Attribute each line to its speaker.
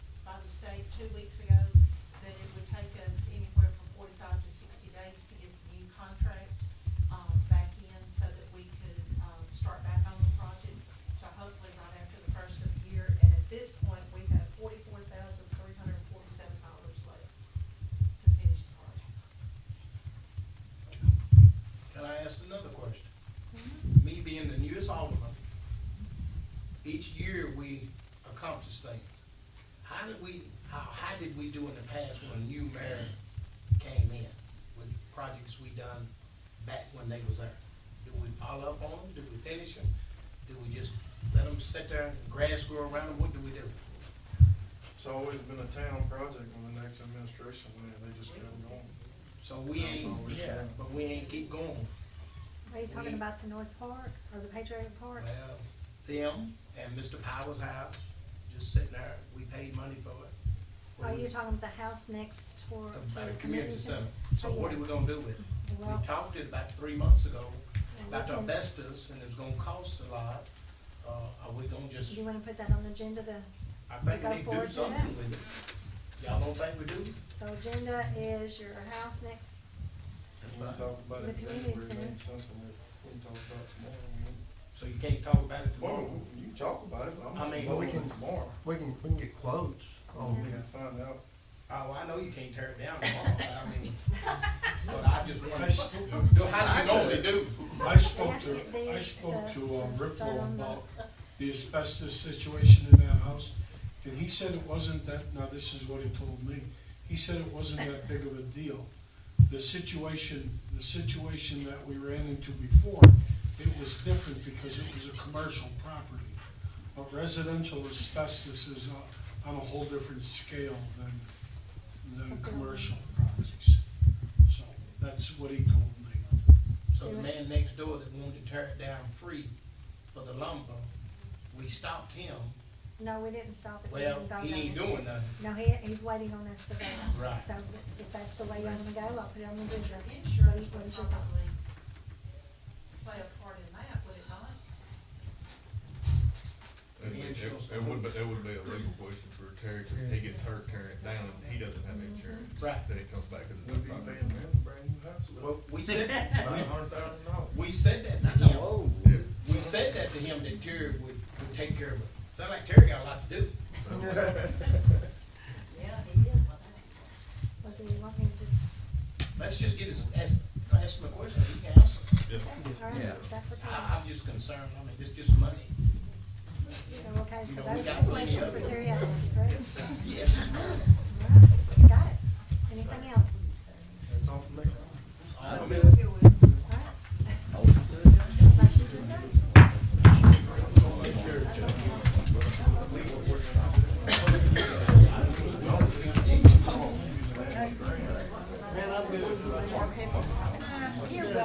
Speaker 1: state two weeks ago that it would take us anywhere from forty-five to sixty days to get the new contract, um, back in so that we could, um, start back on the project. So hopefully right after the first of the year, and at this point, we have forty-four thousand three hundred and forty-seven dollars left to finish the project.
Speaker 2: Can I ask another question?
Speaker 1: Mm-hmm.
Speaker 2: Me being the newest alderman, each year we accomplish things. How did we, how, how did we do in the past when a new mayor came in with projects we done back when they was there? Do we follow up on them? Do we finish them? Do we just let them sit there and grass grow around them? What do we do?
Speaker 3: It's always been a town project when the next administration went in, they just kept going.
Speaker 2: So we ain't, yeah, but we ain't keep going.
Speaker 4: Are you talking about the North Park or the Patriotic Park?
Speaker 2: Well, them and Mr. Powers' house, just sitting there, we paid money for it.
Speaker 4: Are you Oh, talking about the house next door
Speaker 2: About
Speaker 4: to
Speaker 2: the community center. So
Speaker 4: Oh,
Speaker 2: what are
Speaker 4: yes.
Speaker 2: we gonna do with it?
Speaker 4: Well-
Speaker 2: We talked it about three months ago, about the
Speaker 4: Well, we can-
Speaker 2: asbestos, and it's gonna cost a lot. Uh, are we gonna
Speaker 4: Do
Speaker 2: just,
Speaker 4: you wanna put that on the agenda to,
Speaker 2: I think
Speaker 4: go
Speaker 2: we need to
Speaker 4: forward
Speaker 2: do
Speaker 4: to
Speaker 2: something
Speaker 4: that?
Speaker 2: with it. Y'all don't think we do?
Speaker 4: so agenda is your house next,
Speaker 3: If we talk about
Speaker 4: The
Speaker 3: it, today,
Speaker 4: community
Speaker 3: it
Speaker 4: center.
Speaker 3: ain't something that we can talk about tomorrow.
Speaker 2: So you can't talk about it
Speaker 3: Well,
Speaker 2: tomorrow?
Speaker 3: you can talk about it, but
Speaker 2: I
Speaker 3: I'm,
Speaker 2: mean-
Speaker 3: but we can tomorrow,
Speaker 5: We can, we can get quotes
Speaker 3: we
Speaker 5: on,
Speaker 3: can find out.
Speaker 2: Oh, I know you can't tear it down tomorrow, but I mean, but I just wanna, do how do you normally do?
Speaker 6: I
Speaker 4: they
Speaker 6: spoke
Speaker 4: have to get
Speaker 6: to, I
Speaker 4: these
Speaker 6: spoke to um,
Speaker 4: to start
Speaker 6: Ripple
Speaker 4: on the-
Speaker 6: about the asbestos situation in that house, and he said it wasn't that, now this is what he told me, he said it wasn't that big of a deal. The situation, the situation that we ran into before, it was different because it was a commercial property. But residential asbestos is uh, on- on a whole different scale than, than commercial properties. So that's what he told me.
Speaker 2: So the man next door that wanted to tear it down free for the lumber, we stopped him.
Speaker 4: No, we didn't stop it. We
Speaker 2: Well,
Speaker 4: didn't vote
Speaker 2: he
Speaker 4: on
Speaker 2: ain't
Speaker 4: it.
Speaker 2: doing nothing.
Speaker 4: No, he, he's waiting on us to vote. on it.
Speaker 2: Right.
Speaker 4: So if that's the way you want to go, I'll put it on the agenda.
Speaker 1: Insurance
Speaker 4: What
Speaker 1: would
Speaker 4: is your thoughts?
Speaker 1: probably play a part in that, would it not?
Speaker 7: It would- It it would, be it would be a legal question for Terry, cause he gets hurt tearing it down, and he doesn't have insurance.
Speaker 2: Right.
Speaker 7: Then he comes back, cause it's
Speaker 3: We'll
Speaker 7: a
Speaker 3: be
Speaker 7: property.
Speaker 3: paying them a brand new house, about
Speaker 2: Well, we said,
Speaker 3: five hundred thousand dollars.
Speaker 2: we, we said that to him.
Speaker 7: Yeah,
Speaker 2: We said that to him that Terry would, would take care of it. Sound like Terry got a lot to do.
Speaker 7: so-
Speaker 1: Yeah, he is, well, that ain't.
Speaker 4: Or do you want me to just,
Speaker 2: Let's just get his, ask, ask him a question, he can answer.
Speaker 7: yeah.
Speaker 4: all
Speaker 5: Yeah.
Speaker 4: right, that's what
Speaker 2: I,
Speaker 4: time.
Speaker 2: I'm just concerned, I mean, it's just money.
Speaker 4: So, okay,
Speaker 2: You
Speaker 4: so
Speaker 2: know, we
Speaker 4: those
Speaker 2: got
Speaker 4: two questions
Speaker 2: plenty
Speaker 4: for
Speaker 2: of-
Speaker 4: Terry Allen, correct?